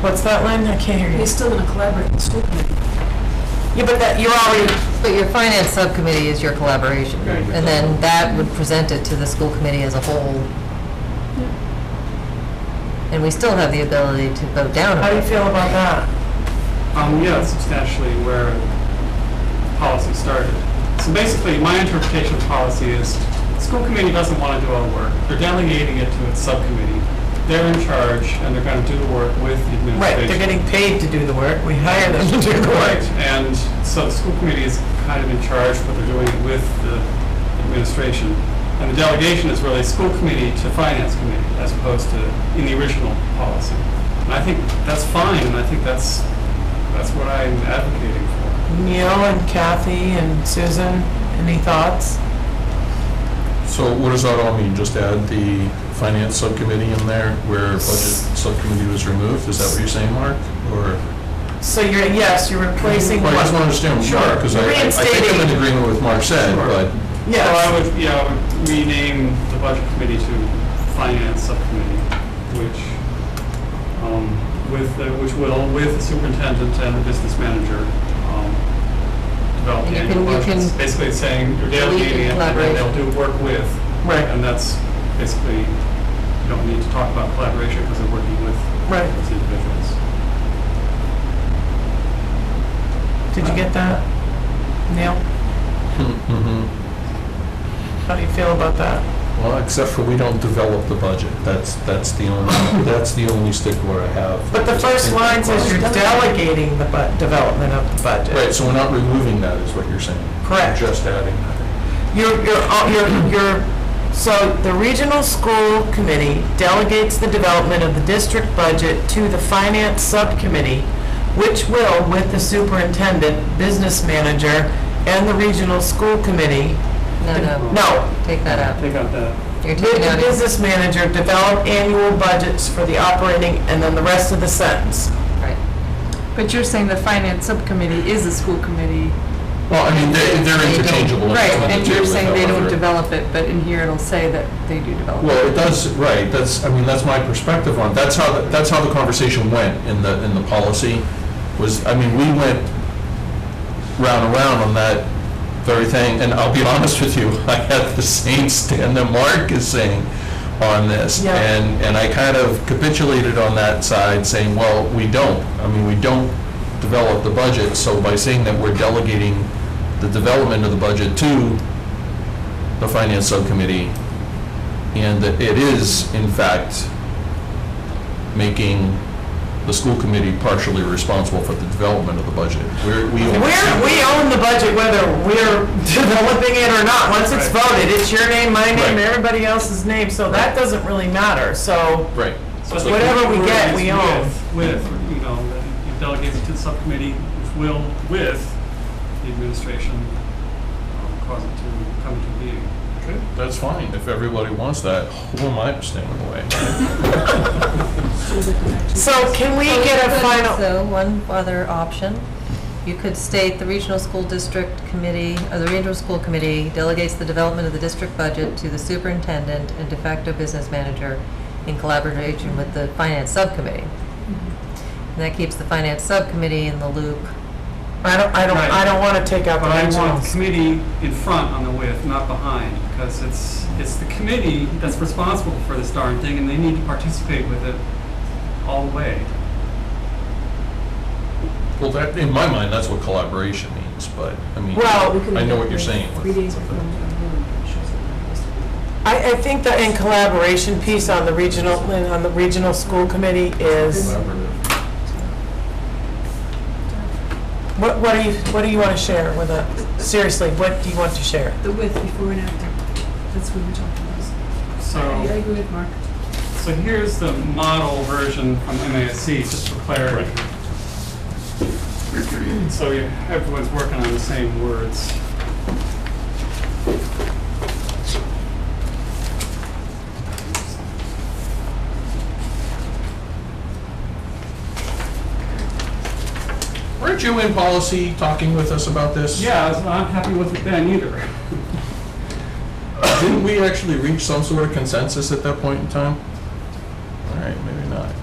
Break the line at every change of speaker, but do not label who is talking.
What's that, Lynn? I can't hear you.
You're still gonna collaborate with school committee.
Yeah, but that, you're already,
But your finance subcommittee is your collaboration, and then that would present it to the school committee as a whole. And we still have the ability to vote down
how do
on
you
it.
feel about that?
Um, yeah, that's substantially where policy started. So basically, my interpretation of policy is, school committee doesn't want to do all the work. They're delegating it to its subcommittee. They're in charge, and they're going to do the work with the
Right,
administration.
they're getting paid to do the work, we hire them to do the
Right,
work.
and so the school committee is kind of in charge, but they're doing it with the administration. And the delegation is really school committee to finance committee, as opposed to in the original policy. And I think that's fine, and I think that's, that's what I'm advocating for.
Neil and Kathy and Susan, any thoughts?
So what does that all mean? Just add the finance subcommittee in there where budget subcommittee was removed? Is that what you're saying, Mark? Or,
So you're, yes, you're replacing
Well, I just
what?
want to understand what
Sure.
Mark, because I, I I think I'm in
Reinstating.
agreement with Mark said,
Sure.
but
So I
Yes,
would, yeah, I would rename the budget committee to finance subcommittee, which, um, with, the- which will, with the superintendent and the business manager, um, develop
And
the
you can-
annual
you can-
budgets. Basically it's saying you're delegating it, and then
collaborate.
they'll do work with.
Right.
And that's basically, you don't need to talk about collaboration because they're working with
right,
those individuals.
did you get that? Neil, Mm-hmm.
Mhm.
how do you feel about that?
Well, except for we don't develop the budget. That's, that's the only, that's the only stickler I have.
But the first line says you're delegating the bu, development of the budget.
Right, so we're not removing that, is what you're saying?
Correct.
Just adding that.
You're, you're, all- you're, you're, so the regional school committee delegates the development of the district budget to the finance subcommittee, which will, with the superintendent, business manager, and the regional school committee,
No, no,
no,
take that out.
Take out that.
You're
with
taking
the
out,
business manager, develop annual budgets for the operating, and then the rest of the sentence.
right.
But you're saying the finance subcommittee is a school committee.
Well, I mean, they're,
They
they're
don't-
interchangeable. It's
Right,
one of
and
the
you're
two,
saying they don't
however.
develop it, but in here it'll say that they do develop it.
Well, it does, right, that's, I mean, that's my perspective on, it. that's how, the- that's how the conversation went in the, in the policy, was, I mean, we went round and round on that very thing, and I'll be honest with you, I had the same stand that Mark is saying on this.
Yeah.
And, and I kind of capitulated on that side, saying, well, we don't, I mean, we don't develop the budget, so by saying that we're delegating the development of the budget to the finance subcommittee, and that it is, in fact, making the school committee partially responsible for the development of the budget. We're, we
We're,
oversee-
we own the budget whether we're developing it or not. Once it's
Right.
voted, it's your name, my name,
Right.
everybody else's name, so that doesn't really matter, so.
Right.
So
It's
the
like-
Whatever we
word
get,
is
we own.
With, with, you know, that you delegate it to the subcommittee, which will, with the administration, um, cause it to come to being.
Okay, That's fine, if everybody wants that, who am I to stand in the way?
So can we get a final,
So, one other option, you could state the regional school district committee, or the regional school committee delegates the development of the district budget to the superintendent and de facto business manager in collaboration with the finance subcommittee.
Mm-hmm.
And that keeps the finance subcommittee in the loop.
I don't, I don't, I don't want to take out the
But I want
regionals.
committee in front on the with, not behind, because it's, it's the committee that's responsible for this darn thing, and they need to participate with it all the way.
Well, that, in my mind, that's what collaboration means, but, I mean,
Well, we
I know what you're saying. with-
Three days before the vote, it shows that we're supposed to be-
I, I think the in collaboration piece on the regional, on the regional school committee is,
Collaborative.
what, what do you, what do you want to share with us? Seriously, what do you want to share?
The with before and after, that's what we're talking about.
So.
I agree with Mark.
So here's the model version from MASC, just for clarity. So you- everyone's working on the same words.
Weren't you in policy talking with us about this?
Yeah, I was not happy with it then either.
Didn't we actually reach some sort of consensus at that point in time?